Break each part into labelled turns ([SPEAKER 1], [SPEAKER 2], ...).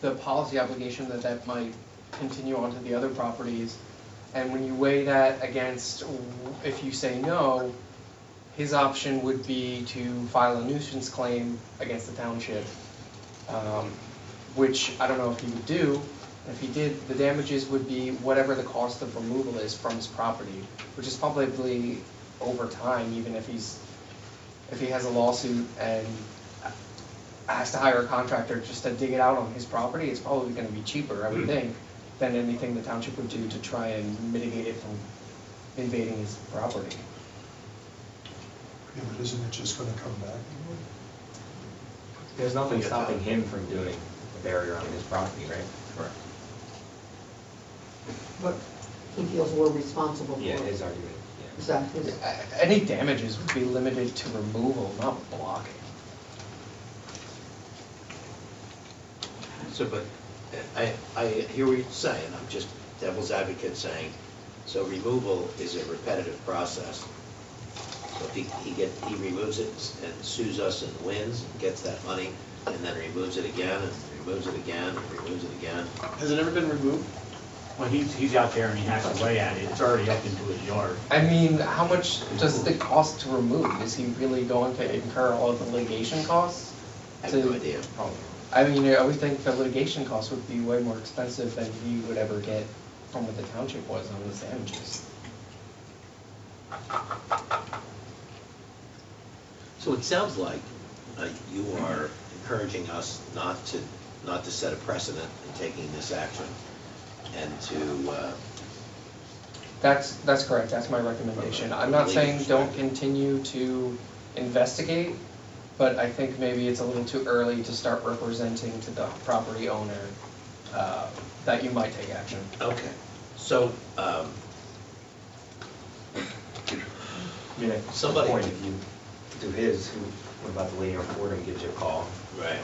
[SPEAKER 1] the policy obligation that that might continue onto the other properties. And when you weigh that against, w- if you say no, his option would be to file a nuisance claim against the township, um, which I don't know if he would do. If he did, the damages would be whatever the cost of removal is from his property, which is probably over time, even if he's, if he has a lawsuit and has to hire a contractor just to dig it out on his property, it's probably gonna be cheaper, I
[SPEAKER 2] Hmm.
[SPEAKER 1] would think, than anything the township would do to try and mitigate it from invading his property.
[SPEAKER 3] Yeah, but isn't it just gonna come back?
[SPEAKER 4] There's nothing stopping him from doing a barrier on his property, right? Correct.
[SPEAKER 5] But he feels we're responsible for it.
[SPEAKER 4] Yeah, his argument,
[SPEAKER 5] Is
[SPEAKER 4] yeah.
[SPEAKER 5] that his?
[SPEAKER 1] Uh, Any damages would be limited to removal, not blocking.
[SPEAKER 2] So, but I, I hear what you're saying, I'm just devil's advocate saying, so removal is a repetitive process. So if he, he get, he removes it and sues us and wins, and gets that money, and then removes it again, and removes it again, and removes it again.
[SPEAKER 6] Has it ever been removed?
[SPEAKER 7] Well, he's, he's out there and he hacks away at it, it's already up into his yard.
[SPEAKER 1] I mean, how much does it cost to remove? Is he really going to incur all of the litigation costs?
[SPEAKER 2] I have no
[SPEAKER 1] to-
[SPEAKER 2] idea.
[SPEAKER 1] I mean, I would think the litigation costs would be way more expensive than he would ever get from what the township was on his damages.
[SPEAKER 2] So it sounds like uh, you are encouraging us not to, not to set a precedent in taking this action, and to, uh,
[SPEAKER 1] That's, that's correct, that's my recommendation. I'm not saying don't continue to investigate, but I think maybe it's a little too early to start representing to the property owner uh, that you might take action.
[SPEAKER 2] okay, so, um,
[SPEAKER 4] I mean, at some
[SPEAKER 2] Somebody-
[SPEAKER 4] point, if you do his, who, what about the lady on Fordham gives you a call
[SPEAKER 2] right,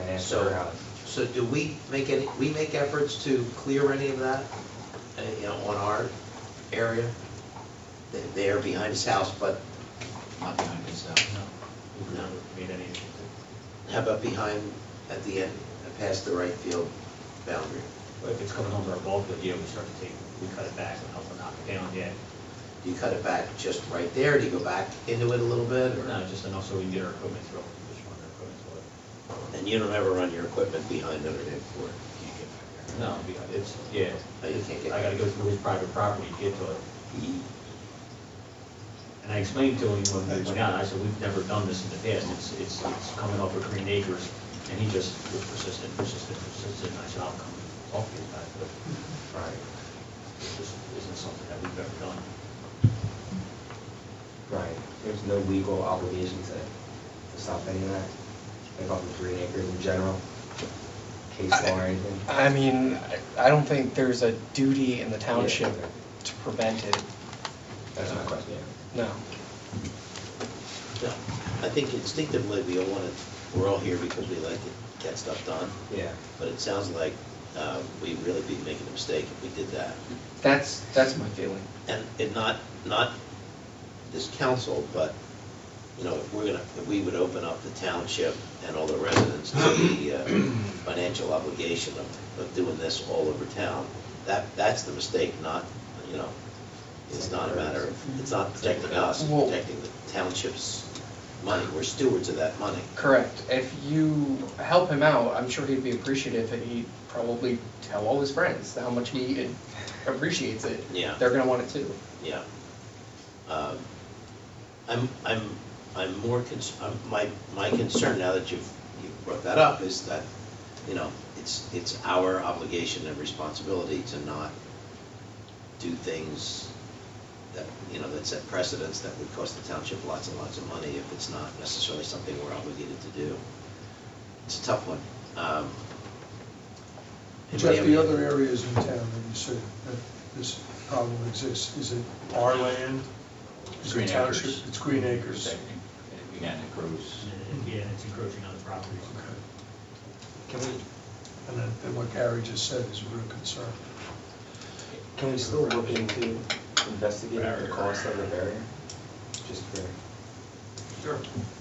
[SPEAKER 4] and asks her
[SPEAKER 2] So,
[SPEAKER 4] how?
[SPEAKER 2] so do we make any, we make efforts to clear any of that, uh, you know, on our area? They- They are behind his house, but,
[SPEAKER 6] Not behind his house, no.
[SPEAKER 2] No.
[SPEAKER 6] Made any,
[SPEAKER 2] how about behind, at the end, past the right field boundary?
[SPEAKER 7] If it's coming over our ball field, yeah, we start to take, we cut it back and help them knock it down, yeah.
[SPEAKER 2] Do you cut it back just right there, do you go back into it a little bit, or?
[SPEAKER 7] No, just enough so we can get our equipment through, just run our equipment through
[SPEAKER 2] And you don't ever run your equipment behind Notre Dame Ford? You can't get
[SPEAKER 7] it. No, because it's, yeah,
[SPEAKER 2] back there. No, Oh, you can't get.
[SPEAKER 7] I gotta go through his private property to get to it. And I explained to him when we went out, I said, we've never done this in the past, it's, it's, it's coming over Green Acres, and he just was persistent, persistent, persistent, and I said, I'll come talk to you about it, but, right, this isn't something that we've ever done.
[SPEAKER 4] Right, there's no legal obligation to, to stop any of that, like off the green acres in general, case law or anything?
[SPEAKER 1] I mean, I don't think there's a duty in the township to prevent it,
[SPEAKER 4] That's my question, yeah.
[SPEAKER 1] no.
[SPEAKER 2] No, I think instinctively, we all want to, we're all here because we like to get stuff done.
[SPEAKER 4] Yeah.
[SPEAKER 2] But it sounds like uh, we'd really be making a mistake if we did that.
[SPEAKER 1] That's, that's my feeling.
[SPEAKER 2] And, and not, not this council, but, you know, if we're gonna, if we would open up the township and all the residents to the uh, financial obligation of, of doing this all over town, that, that's the mistake, not, you know, it's not a matter of, it's not protecting us, it's
[SPEAKER 1] Well-
[SPEAKER 2] protecting the township's money. We're stewards of that money.
[SPEAKER 1] Correct. If you help him out, I'm sure he'd be appreciative, and he'd probably tell all his friends how much he appreciates it.
[SPEAKER 2] Yeah.
[SPEAKER 1] They're gonna want it too.
[SPEAKER 2] Yeah. Um, I'm, I'm, I'm more, cons- I'm- my, my concern now that you've, you've brought that up is that, you know, it's, it's our obligation and responsibility to not do things that, you know, that set precedents that would cost the township lots and lots of money if it's not necessarily something we're obligated to do. It's a tough one. Um,
[SPEAKER 3] Jeff,
[SPEAKER 2] anybody have
[SPEAKER 3] the
[SPEAKER 2] any-
[SPEAKER 3] other areas in town that you say that this problem exists, is it our land? Is
[SPEAKER 8] Green
[SPEAKER 3] it township?
[SPEAKER 8] Acres.
[SPEAKER 3] It's Green Acres.
[SPEAKER 8] Again, it grows.
[SPEAKER 7] Yeah, it's encroaching on the property.
[SPEAKER 3] Okay.
[SPEAKER 4] Can we,
[SPEAKER 3] And then, and what Gary just said is a real concern.
[SPEAKER 4] can we still look into investigating the cost of the barrier? Just for,
[SPEAKER 2] Sure.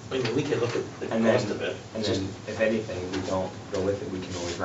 [SPEAKER 2] I mean, we can look at the
[SPEAKER 4] and then,
[SPEAKER 2] cost of it.
[SPEAKER 4] and
[SPEAKER 2] just-
[SPEAKER 4] then if anything, we don't go with it, we can always